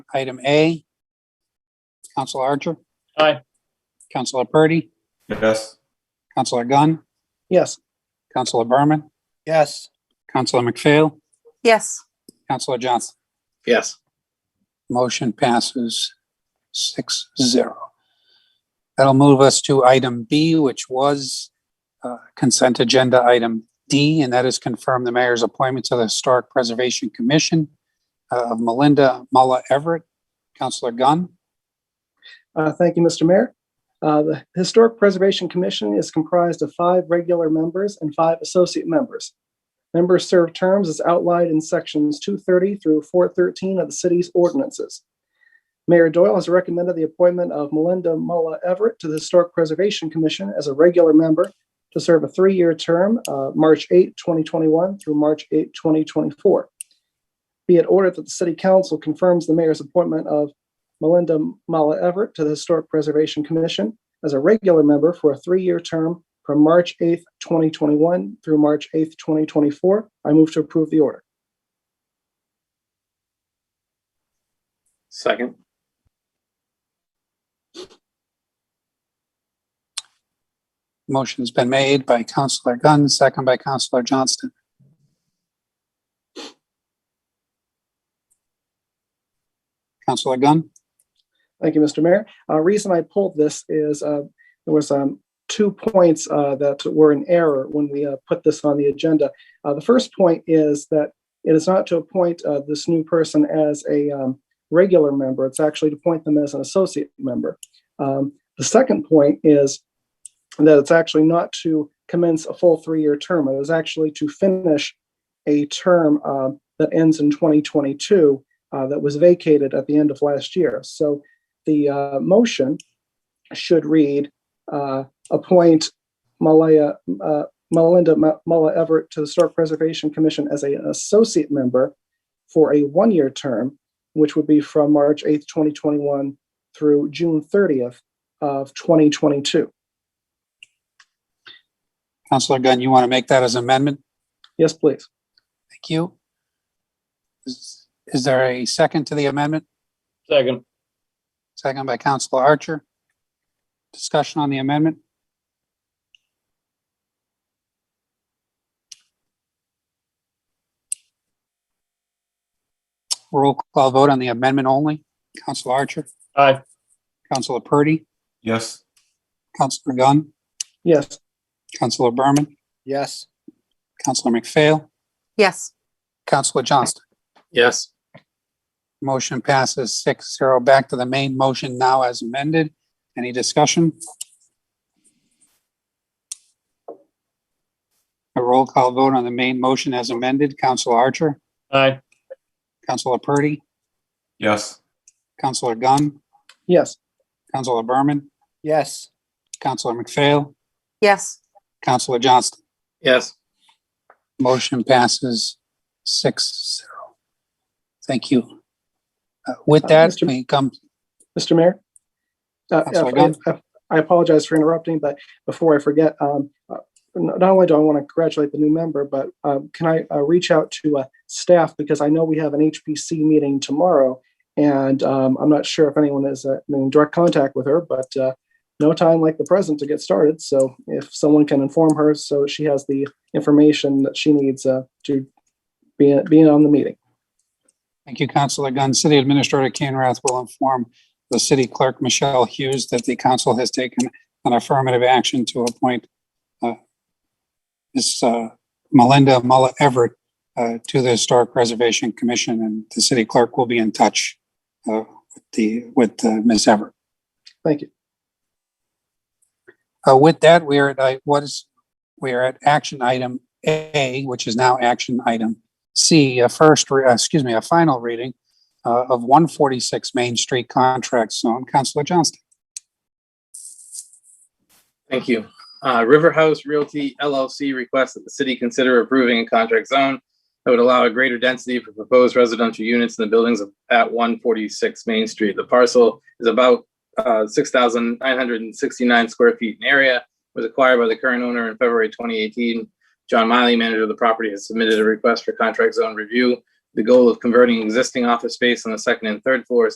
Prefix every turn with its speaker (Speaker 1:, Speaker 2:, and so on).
Speaker 1: Item A. Counselor Archer,
Speaker 2: Aye.
Speaker 1: Counselor Purdy,
Speaker 3: Yes.
Speaker 1: Counselor Gunn,
Speaker 2: Yes.
Speaker 1: Counselor Berman,
Speaker 2: Yes.
Speaker 1: Counselor McPhail,
Speaker 4: Yes,
Speaker 1: Counselor Johnson.
Speaker 2: Yes.
Speaker 1: Motion passes six zero. That'll move us to item B, which was uh, consent agenda item D, and that is confirm the mayor's appointment to the Historic Preservation Commission uh, of Melinda Mulla Everett. Counselor Gunn,
Speaker 5: Uh, Thank you, Mr. Mayor. Uh, The Historic Preservation Commission is comprised of five regular members and five associate members. Members serve terms as outlined in sections 230 through 413 of the city's ordinances. Mayor Doyle has recommended the appointment of Melinda Mulla Everett to the Historic Preservation Commission as a regular member to serve a three-year term, uh, March 8, 2021 through March 8, 2024. Be it ordered that the City Council confirms the mayor's appointment of Melinda Mala Everett to the Historic Preservation Commission as a regular member for a three-year term from March 8th, 2021 through March 8th, 2024. I move to approve the order.
Speaker 2: Second.
Speaker 1: motion's been made by Counselor Gunn, second by Counselor Johnston. Counselor Gunn,
Speaker 5: Thank you, Mr. Mayor. Uh, reason I pulled this is, uh, there was, um, two points, uh, that were in error when we, uh, put this on the agenda. Uh, the first point is that it is not to appoint, uh, this new person as a, um, regular member. It's actually to appoint them as an associate member. Um, the second point is that it's actually not to commence a full three-year term. It is actually to finish a term, uh, that ends in 2022, uh, that was vacated at the end of last year. So, the uh, motion should read, uh, appoint Malaya, uh, Melinda Ma- Mulla Everett to the Historic Preservation Commission as an associate member for a one-year term, which would be from March 8th, 2021 through June 30th of 2022.
Speaker 1: Counselor Gunn, you want to make that as amendment?
Speaker 5: Yes, please.
Speaker 1: Thank you. Is is there a second to the amendment?
Speaker 2: Second.
Speaker 1: Second by Counselor Archer. Discussion on the amendment? Roll call vote on the amendment only. Counselor Archer,
Speaker 2: Aye.
Speaker 1: Counselor Purdy,
Speaker 3: Yes.
Speaker 1: Counselor Gunn,
Speaker 5: Yes,
Speaker 1: Counselor Berman,
Speaker 2: Yes.
Speaker 1: Counselor McPhail,
Speaker 4: yes,
Speaker 1: Counselor Johnston.
Speaker 2: Yes.
Speaker 1: Motion passes six zero. Back to the main motion now as amended. Any discussion? A roll call vote on the main motion as amended. Counselor Archer,
Speaker 2: Aye.
Speaker 1: Counselor Purdy,
Speaker 3: Yes.
Speaker 1: Counselor Gunn,
Speaker 5: yes,
Speaker 1: Counselor Berman,
Speaker 2: Yes.
Speaker 1: Counselor McPhail,
Speaker 4: yes,
Speaker 1: Counselor Johnston.
Speaker 2: Yes.
Speaker 1: Motion passes six zero. Thank you. Uh, With
Speaker 5: Uh,
Speaker 1: that,
Speaker 5: Mr.
Speaker 1: we come,
Speaker 5: Mr. Mayor? Uh,
Speaker 1: Councilor
Speaker 5: I-
Speaker 1: Gunn?
Speaker 5: I- I apologize for interrupting, but before I forget, um, uh, not only do I want to congratulate the new member, but um, can I uh, reach out to uh, staff? Because I know we have an HPC meeting tomorrow, and um, I'm not sure if anyone is uh, in direct contact with her, but uh, no time like the present to get started. So if someone can inform her, so she has the information that she needs uh, to be be on the meeting.
Speaker 1: Thank you, Councilor Gunn. City Administrator Kane Rath will inform the city clerk, Michelle Hughes, that the council has taken an affirmative action to appoint uh, Ms. uh, Melinda Mulla Everett uh, to the Historic Preservation Commission, and the city clerk will be in touch uh, with the, with uh, Ms. Everett.
Speaker 5: Thank you.
Speaker 1: Uh, With that, we are at, I- what is, we are at action item A, which is now action item C, a first, re- uh, excuse me, a final reading uh, of 146 Main Street Contract Zone. Counselor Johnston.
Speaker 6: Thank you. Uh, River House Realty LLC requests that the city consider approving a contract zone that would allow a greater density for proposed residential units in the buildings of- at one forty-six Main Street. The parcel is about uh, six thousand nine hundred and sixty-nine square feet in area, was acquired by the current owner in February twenty eighteen. John Miley, manager of the property, has submitted a request for contract zone review. The goal of converting existing office space on the second and third floors